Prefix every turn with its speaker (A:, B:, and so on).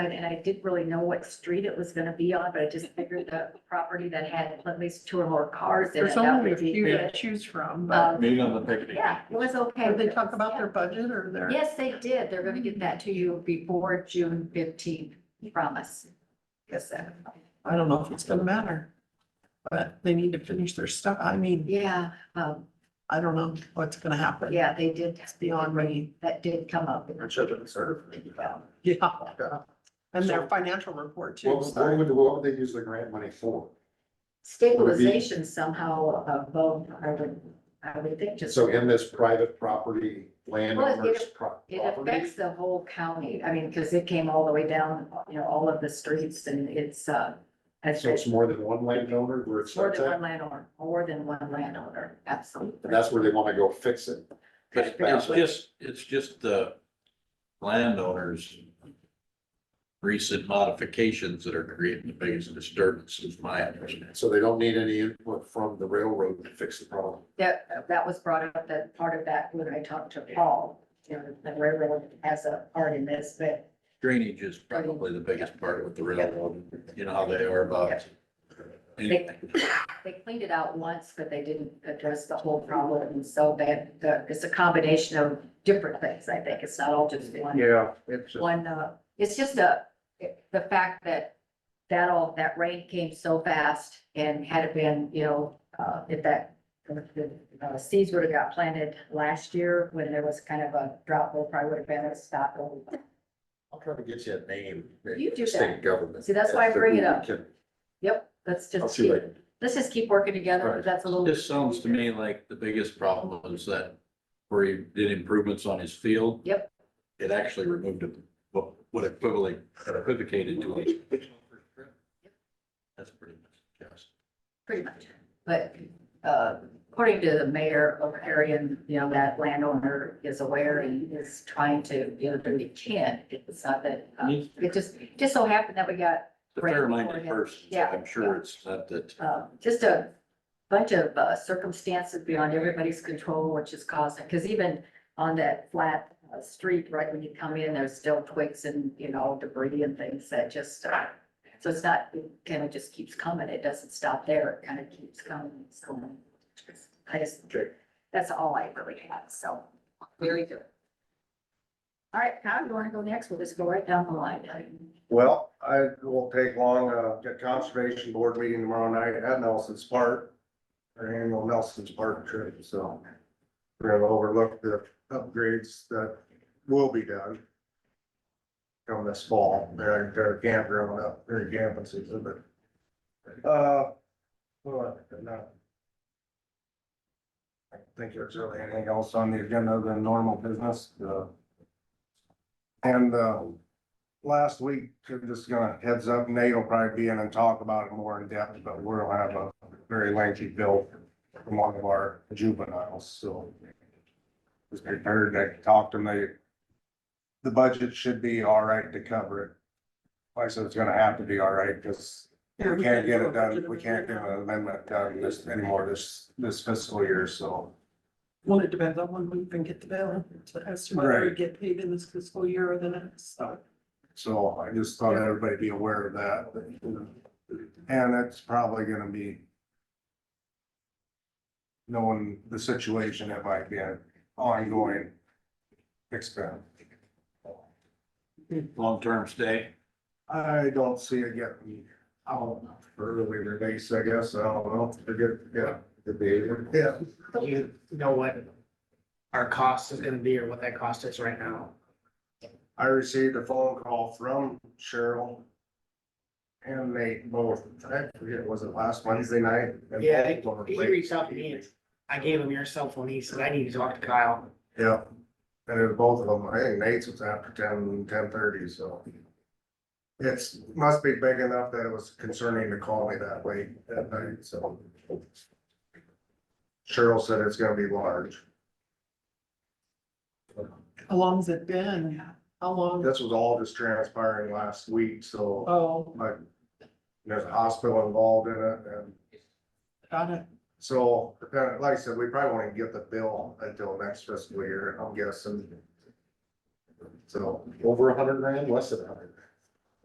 A: And and I didn't really know what street it was gonna be on, but I just figured the property that had at least two or more cars in it,
B: There's
A: that
B: only a
A: would
B: few
A: be.
B: to choose from, but
A: Um,
C: Meeting on the picnic.
A: Yeah, it was Um, okay.
B: did they talk about their budget or their?
A: Yes, they did. They're gonna get that to you before June fifteenth, promise. Yes, sir.
B: I don't know if it's gonna matter. But they need to finish their stuff. I mean,
A: yeah, um,
B: I don't know what's gonna happen.
A: yeah, they did,
B: It's beyond me.
A: that did come up.
C: children serve.
B: Yeah. And their financial report too.
D: What, what
B: so-
D: would, what would they use the grant money for?
A: Stabilization somehow of both, I would, I would think just.
D: So in this private property, landowners. pro-
A: It
D: property?
A: affects the whole county. I mean, because it came all the way down, you know, all of the streets and it's, uh, as
D: So it's more than one landowner where it
A: more
D: starts
A: than one
D: at,
A: landowner, more than one landowner, absolutely.
D: and that's where they wanna go fix it.
C: It's it's just, it's just the landowners. Recent modifications that are creating the biggest disturbance is my understanding.
D: So they don't need any input from the railroad to fix the problem.
A: That, that was brought up, that part of that when I talked to Paul, you know, the railroad has a part in this, but
C: Drainage is probably the biggest part with the railroad, you know how they are about.
A: they, they cleaned it out once, but they didn't address the whole problem. And so that, the, it's a combination of different things, I think. It's not all just one.
D: Yeah, it's.
A: one, uh, it's just a, the fact that that all, that rain came so fast and had it been, you know, uh, if that if the uh, seeds would have got planted last year when there was kind of a drought, there probably would have been a stop.
D: I'll try to get you a name.
A: You do
D: State government.
A: See, that's why I bring it up.
D: Can-
A: Yep, let's
D: I'll
A: just,
D: see
A: keep-
D: what I can-
A: let's just keep working together.
D: Right.
A: That's a little.
C: This sounds to me like the biggest problem was that where he did improvements on his field.
A: Yep.
C: It actually removed it, what what equivalent, equivocated to it. That's pretty much, yes.
A: Pretty much, but, uh, according to the mayor of Arion, you know, that landowner is aware and is trying to, you know, do what he can. It's not that, uh, it just, just so happened that we got,
C: The fair-minded person, so
A: Yeah.
C: I'm sure it's not that,
A: uh, just a bunch of uh, circumstances beyond everybody's control, which is causing, because even on that flat uh, street, right, when you come in, there's still twigs and, you know, debris and things that just, uh, so it's not, it kind of just keeps coming. It doesn't stop there. It kind of keeps coming, it's going. I just,
D: Okay.
A: that's all I really have, so, very good. All right, Kyle, you want to go next? We'll just go right down the line.
E: Well, I it won't take long, uh, got conservation board meeting tomorrow night at Nelson's Park. Our annual Nelson's Park trip, so. We're gonna overlook the upgrades that will be done. Come this fall, they're, they're campground up, they're camping season, but. Uh, well, no. I don't think there's really anything else on the agenda than normal business, uh. And, uh, last week, I'm just gonna heads up, Nate will probably be in and talk about it more in depth, but we'll have a very lengthy bill from one of our juveniles, so. Just prepared, I talked to him, they, the budget should be all right to cover it. I said it's gonna have to be all right, because
B: Yeah,
E: we can't get it done,
B: budget
E: we can't get
B: amendment.
E: an amendment done this anymore this, this fiscal year, so.
B: Well, it depends on when we even get the bill, so as to whether we
E: Right.
B: get paid in this fiscal year or the next, so.
E: So I just thought everybody be aware of that. And it's probably gonna be. Knowing the situation, it might be an ongoing expense.
C: long-term stay.
E: I don't see it getting out early release, I guess, I don't know, I get, yeah,
D: the behavior.
E: yeah.
F: you know what our cost is gonna be or what that cost is right now.
E: I received a phone call from Cheryl. And Nate both, I forget, was it last Wednesday night?
F: Yeah, he- He reached out to me and I gave him your cell phone. He said, I need to talk to Kyle.
E: Yeah, and it was both of them, I think Nate's was after ten, ten thirty, so. It's, must be big enough that it was concerning to call me that way that night, so. Cheryl said it's gonna be large,
B: How long's it been? How long?
E: this was all just transpiring last week, so,
B: Oh,
E: like. There's a hospital involved in it, and
B: got it.
E: so, depending- like I said, we probably won't even get the bill until next fiscal year, I'm guessing. So,
D: Over a hundred grand, less than a hundred.